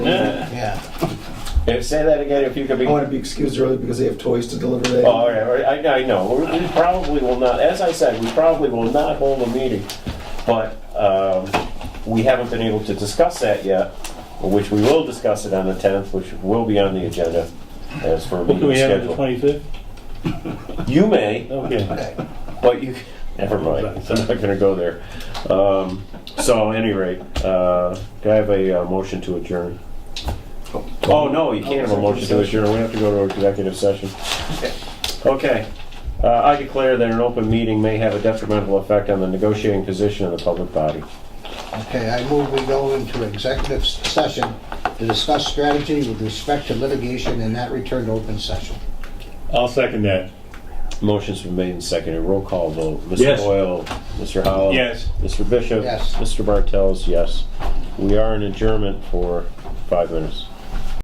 Yeah. If- Say that again, if you could be. I Oh, want to be excused early because they have toys to deliver. They- Oh, all right, all right. I, I know, We- we probably will not, as I said, we probably will not hold a meeting, but um, we haven't been able to discuss that yet, which we will discuss it on the 10th, which will be on the agenda as for a What meeting can we have on the schedule. twenty-fifth? You may, Okay. but you, never mind, I'm not gonna go there. Um, So at any rate, uh, do I have a uh, motion to adjourn? Oh, no, you can't have a motion to adjourn, we have to go to executive session. Okay, Uh, I declare that an open meeting may have a detrimental effect on the negotiating position of the public body. Okay, I move we go into executive session to discuss strategy with respect to litigation and not return to open session. I'll second that. Motion's been made and seconded, roll call vote. Mr. Yes. Boyle, Mr. Holland. Yes. Mr. Bishop. Yes. Mr. Bartels, yes. We are in adjournment for five minutes.